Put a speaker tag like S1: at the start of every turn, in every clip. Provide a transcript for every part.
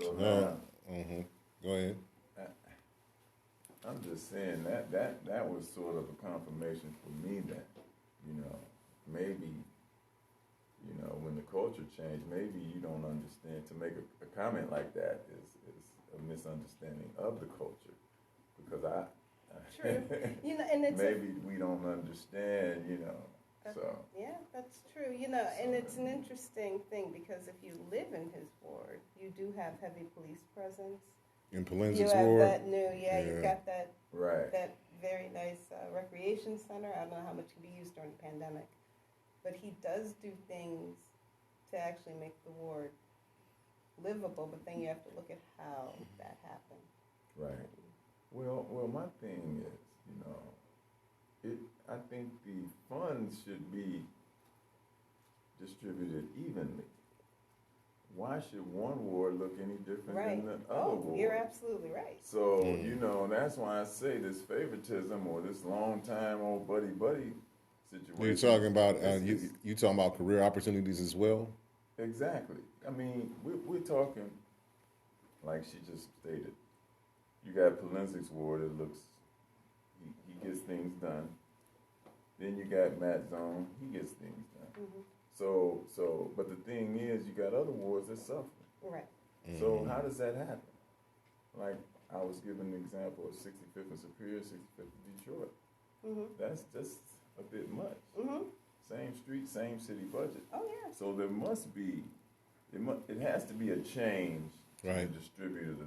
S1: So
S2: Uh,
S1: now,
S2: mhm. Mm-hmm, Go ahead.
S1: I'm just saying that that that was sort of a confirmation for me that you know maybe you know when the culture changed maybe you don't understand to make a, a comment like that is is a misunderstanding of the culture because I
S3: True. You know, and it's a-
S1: maybe we don't understand you know so
S3: yeah, that's true. You know, and it's an interesting thing because if you live in his ward, you do have heavy police presence.
S2: In
S3: You
S2: Polenzic's
S3: have
S2: ward.
S3: that new, yeah,
S2: Yeah.
S3: you've got that
S1: right
S3: that very nice uh, recreation center. I don't know how much can be used during the pandemic, but he does do things to actually make the ward livable. But then you have to look at how that happened.
S1: right Well, well, my thing is, you know, it. I think the funds should be distributed evenly. Why should one ward look any different
S3: Right.
S1: than the other
S3: Oh,
S1: ward?
S3: you're absolutely right.
S1: So
S2: Mm.
S1: you know, and that's why I say this favoritism or this long time old buddy buddy situation.
S2: You're talking about uh,
S1: This
S2: you.
S1: is-
S2: You talking about career opportunities as well.
S1: Exactly. I mean, we, we're talking, like she just stated, you got Polenzic's ward, it looks, he, he gets things done. Then you got Matt Zone, he gets things done.
S3: Mhm.
S1: So, so, but the thing is, you got other wards that suffer.
S3: Right.
S1: So
S2: Mm-hmm.
S1: how does that happen? Like, I was given the example of 65th and Superior, 65th and Detroit.
S3: hmm
S1: That's just a bit much.
S3: hmm
S1: Same street, same city budget.
S3: Oh yeah.
S1: So there must be, it mu- it has to be a change
S2: Right.
S1: to distribute the,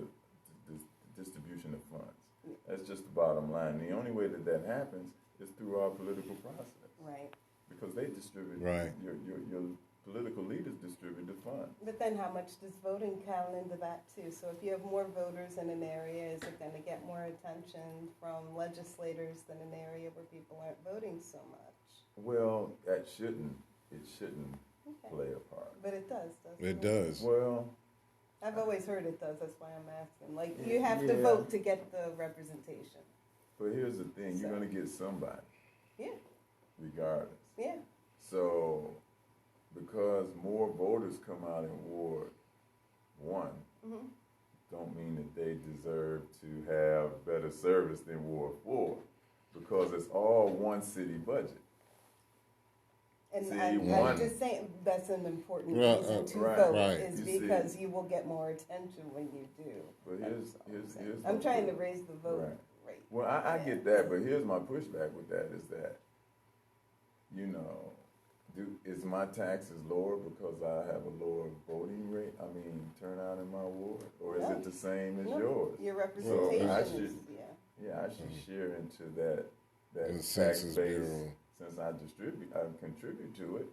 S1: the, the distribution of funds. That's just the bottom line. The only way that that happens is through our political process
S3: Right.
S1: because they distribute
S2: Right.
S1: your, your your political leaders distribute the funds.
S3: But then how much does voting count into that too? So if you have more voters in an area, is it going to get more attention from legislators than an area where people aren't voting so much?
S1: Well, that shouldn't it shouldn't
S3: Okay.
S1: play a part.
S3: But it does, doesn't it?
S2: It does.
S1: Well,
S3: I've always heard it does. That's why I'm asking. Like you
S1: Yeah.
S3: have to
S1: Yeah.
S3: vote to get the representation.
S1: but here's the thing: you're
S3: So-
S1: going to get somebody.
S3: Yeah.
S1: Regardless.
S3: Yeah.
S1: So, because more voters come out in Ward One,
S3: hmm
S1: don't mean that they deserve to have better service than Ward Four, because it's all one city budget.
S3: And
S1: See,
S3: I'm,
S1: one-
S3: I'm just saying that's an important
S2: Right,
S3: reason
S2: uh,
S3: to
S1: right,
S3: vote
S2: right.
S3: is
S1: You see.
S3: because you will get more attention when you do.
S1: But
S3: That's
S1: here's
S3: all I'm
S1: here's
S3: saying.
S1: here's.
S3: I'm
S1: my
S3: trying to
S1: push-
S3: raise the vote
S1: Right.
S3: rate.
S1: Well, I, I
S3: Yeah.
S1: get that, but here's my pushback with that is that, you know, do is my taxes lower because I have a lower voting rate? I mean, turnout in my ward, or is
S3: No.
S1: it the same as
S3: No,
S1: yours?
S3: Your representation is
S1: should-
S3: yeah.
S1: Yeah, I should share into that that
S2: Mm. The
S1: tax
S2: Census
S1: base.
S2: Bureau.
S1: Since I distribute, I contribute to it.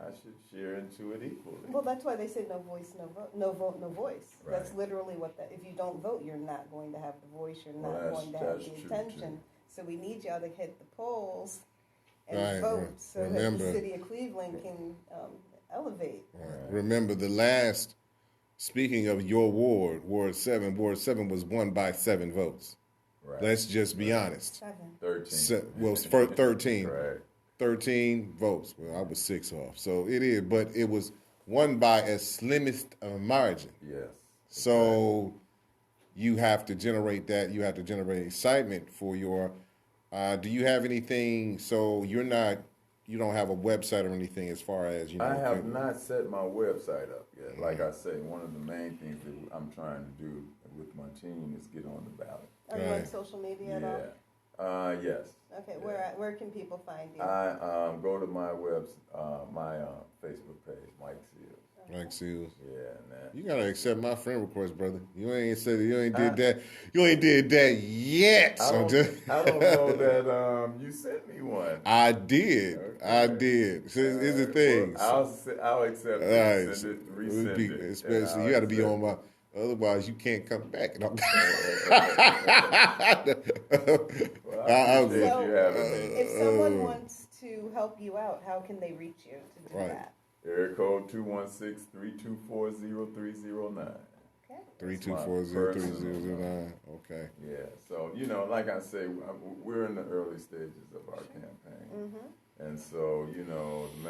S1: I should share into it equally.
S3: Well, that's why they say no voice, no vote, no vote, no voice. That's
S1: Right.
S3: literally what that, if you don't vote, you're not going to have the voice, you're
S1: Well,
S3: not
S1: that's-
S3: going to have
S1: that's
S3: the
S1: true,
S3: attention. So we need y'all to hit the polls
S2: Right,
S3: and vote
S2: right.
S3: so that
S2: Remember-
S3: the city of Cleveland can um, elevate.
S2: Right. Remember the last. Speaking of your ward, Ward Seven. Ward Seven was won by seven votes.
S1: right.
S2: Let's just be honest.
S3: Seven.
S1: thirteen.
S2: Se- well, it's fir- thirteen.
S1: Right.
S2: 13 votes. Well, I was six off. So it is, but it was won by a slimmest of margin.
S1: Yes.
S2: So you have to generate that. You have to generate excitement for your. Uh, do you have anything? So you're not, you don't have a website or anything as far as you know.
S1: I have
S2: can-
S1: not set my website up
S2: Mm.
S1: yet. Like I say, one of the main things that I'm trying to do with my team is get on the ballot.
S3: Are you on
S2: Right.
S3: social media at all?
S1: Yeah. Uh, yes.
S3: Okay,
S1: Yeah.
S3: where where can people find you?
S1: I um, go to my webs, uh, my uh, Facebook page, Mike Seals.
S2: Like, see,
S1: Yeah, and that.
S2: you gotta accept my friend request, brother. You ain't said you ain't did that. You ain't did that yet.
S1: I
S2: So
S1: don't,
S2: just,
S1: I don't know that um, you sent me one.
S2: I did. I
S1: Okay.
S2: did. So it's, it's the
S1: Uh,
S2: thing.
S1: well, I'll, se- I'll accept
S2: All
S1: it,
S2: right.
S1: send it,
S2: It would
S1: resend
S2: be-
S1: it.
S2: especially you got to be on my. Otherwise, you can't come back. No.
S1: Well, I
S2: I- Uh, I
S1: appreciate
S2: would-
S3: So,
S1: you having me.
S3: if
S1: oh.
S3: someone wants to help you out, how can they reach you to do
S2: Right.
S3: that?
S1: Area code 216-324-0309.
S3: Okay.
S2: Three two four zero three zero zero nine. Okay.
S1: Yeah, so, you know, like I say, w- we're in the early stages of our campaign.
S3: Mm-hmm.
S1: And so, you know, the